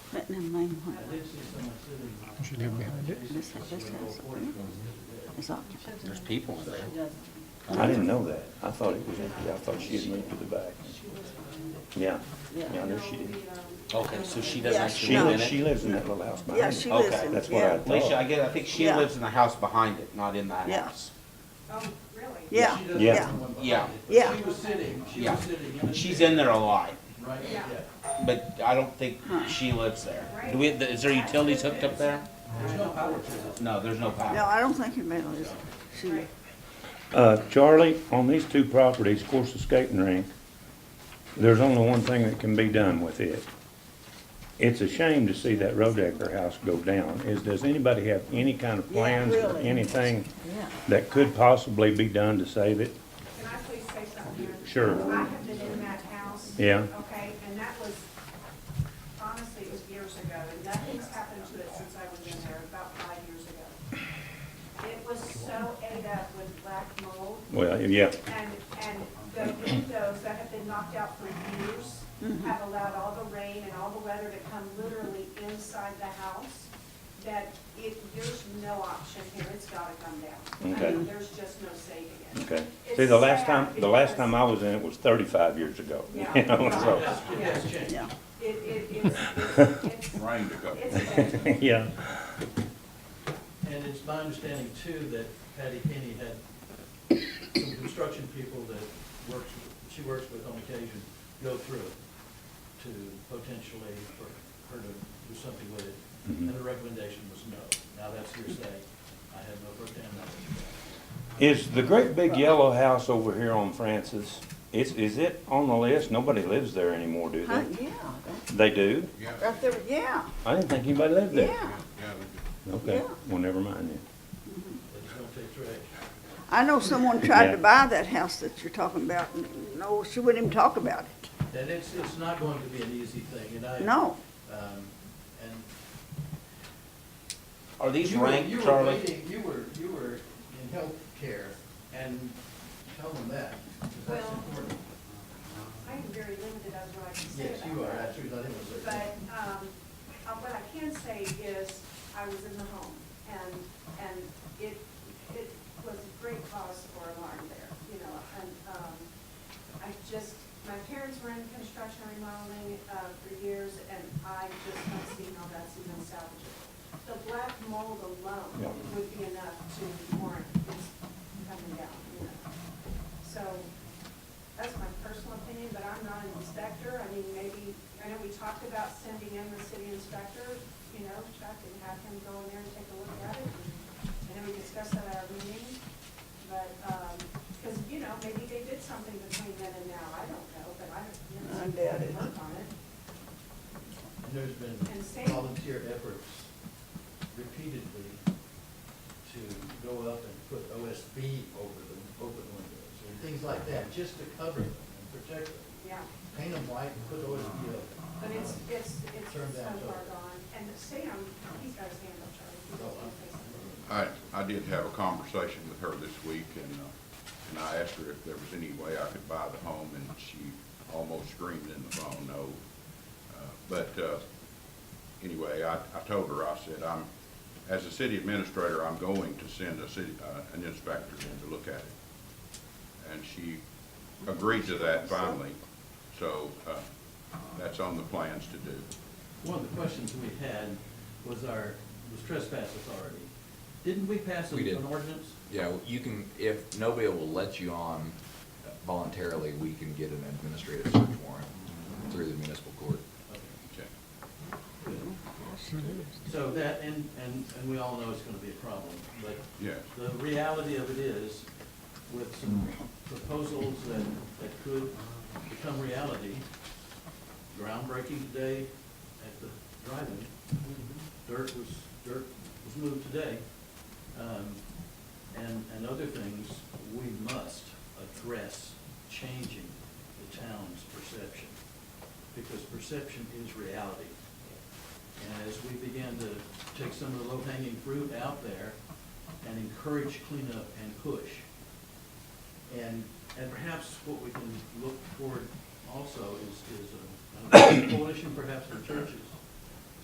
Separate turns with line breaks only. But no, mine won't.
You should live behind it.
This house, this house is occupied.
There's people in there.
I didn't know that. I thought it was empty. I thought she had moved to the back. Yeah, yeah, I know she did.
Okay, so she
Yeah,
doesn't actually
She
no.
live
lives,
in
she
it?
lives in that little house behind it.
Yeah, she
Okay,
lives in,
That's what I
yeah.
Alicia, I
thought.
get, I think she
Yeah.
lives in the house behind it, not in the
Yeah.
house.
Oh, really?
Yeah,
She doesn't
Yeah.
yeah,
have one behind
Yeah.
it, but
Yeah.
She was sitting, she
Yeah.
was sitting in the.
She's in there a lot,
Right, yeah.
Yeah.
but I don't think she lives there. Do we, is there utilities hooked up there?
There's no power to it.
No, there's no
no,
power.
I don't think anybody lives, she,
Uh, Charlie, on these two properties, of course, the skating rink, there's only one thing that can be done with it. It's a shame to see that Rodecker house go down. Is, does anybody have any kind of
Yeah,
plans or
really.
anything
yeah.
that could possibly be done to save it?
Can I please say something? here?
Sure.
I have been in that house.
Yeah.
Okay, and that was, honestly, it was years ago, and nothing's happened to it since I was in there, about five years ago. It was so ate up with black mold
Well, yeah,
and, and the windows that have been knocked out for years
Mm-hmm.
have allowed all the rain and all the weather to come literally inside the house, that it, there's no option here, it's gotta come down. I
Okay.
mean, there's just no saving it.
okay.
It's
See, the last time,
sad
the last
because-
time I was in it was thirty-five years ago.
Yeah.
You know, so,
Yes, Jane.
Yeah,
It, it, it's, it's, it's. Rain to go. It's, bad.
yeah.
And it's my understanding too that Patty Kenny had some construction people that works, she works with on occasion, go through it to potentially for her to do something with it. And the recommendation was no. Now that's hearsay. I have no firsthand knowledge of that.
Is the great big yellow house over here on Francis, is, is it on the list? Nobody lives there anymore, do
huh,
they?
yeah, that's
They do?
right there, yeah,
I didn't think anybody lived there.
yeah.
Okay,
Yeah.
well, never mind then.
They just don't take trash.
I know someone tried
Yeah.
to buy that house that you're talking about, and no, she wouldn't even talk about it,
And it's, it's not going to be an easy thing and I.
no.
Um, and
Are these
You were- you
ranked,
were
Charlie?
waiting- You were, you were in healthcare, and tell them that, 'cause that's
Well,
important.
I am very limited on what I can say
Yes,
about
you are,
that.
that's true, I didn't say
But, um, uh, what I can say is, I was in the home, and, and it, it was a great cause for alarm there, you know, and, um, I just, my parents were in construction remodeling, uh, for years, and I just don't see how that's even salvageable. The black mold
Yeah.
alone would be enough to warrant this coming down, you know. So, that's my personal opinion, but I'm not an inspector. I mean, maybe, I know we talked about sending in the city inspector, you know, Chuck, and have him go in there and take a look at it. And then we discussed that at our meeting, but, um 'cause because, you know, maybe they did something between then and now. I don't know, but I, you know,
I doubt it.
work on it.
And there's been
And say-
volunteer efforts repeatedly to go up and put OSB over the open windows, and things like that, just to cover them and protect them.
Yeah,
Paint them white and put OSB over them.
but it's, it's, it's so
Turned out so.
far gone. And Sam, he's got his hand up, Charlie.
Oh,
He's got his hand up.
I, I did have a conversation with her this week, and, uh, and I asked her if there was any way I could buy the home, and she almost screamed in the phone, no. Uh, But, uh, anyway, I, I told her, I said, I'm, as a city administrator, I'm going to send a city, uh, an inspector in to look at it. And she agreed to that finally, so, uh, that's on the plans to do.
One of the questions we had was our, was trespass authority. Didn't we pass
We did.
an ordinance?
Yeah, you can, if nobody will let you on voluntarily, we can get an administrative search warrant through the municipal court.
Okay.
So that, and, and, and we all know it's gonna be a problem, but.
Yes.
The reality of it is, with some proposals that, that could become reality, groundbreaking today at the drive-in, dirt was, dirt was moved today, um, and, and other things, we must address changing the town's perception, because perception is reality. And as we begin to take some of the low-hanging fruit out there and encourage cleanup and push. And, and perhaps what we can look toward also is, is a a coalition perhaps of churches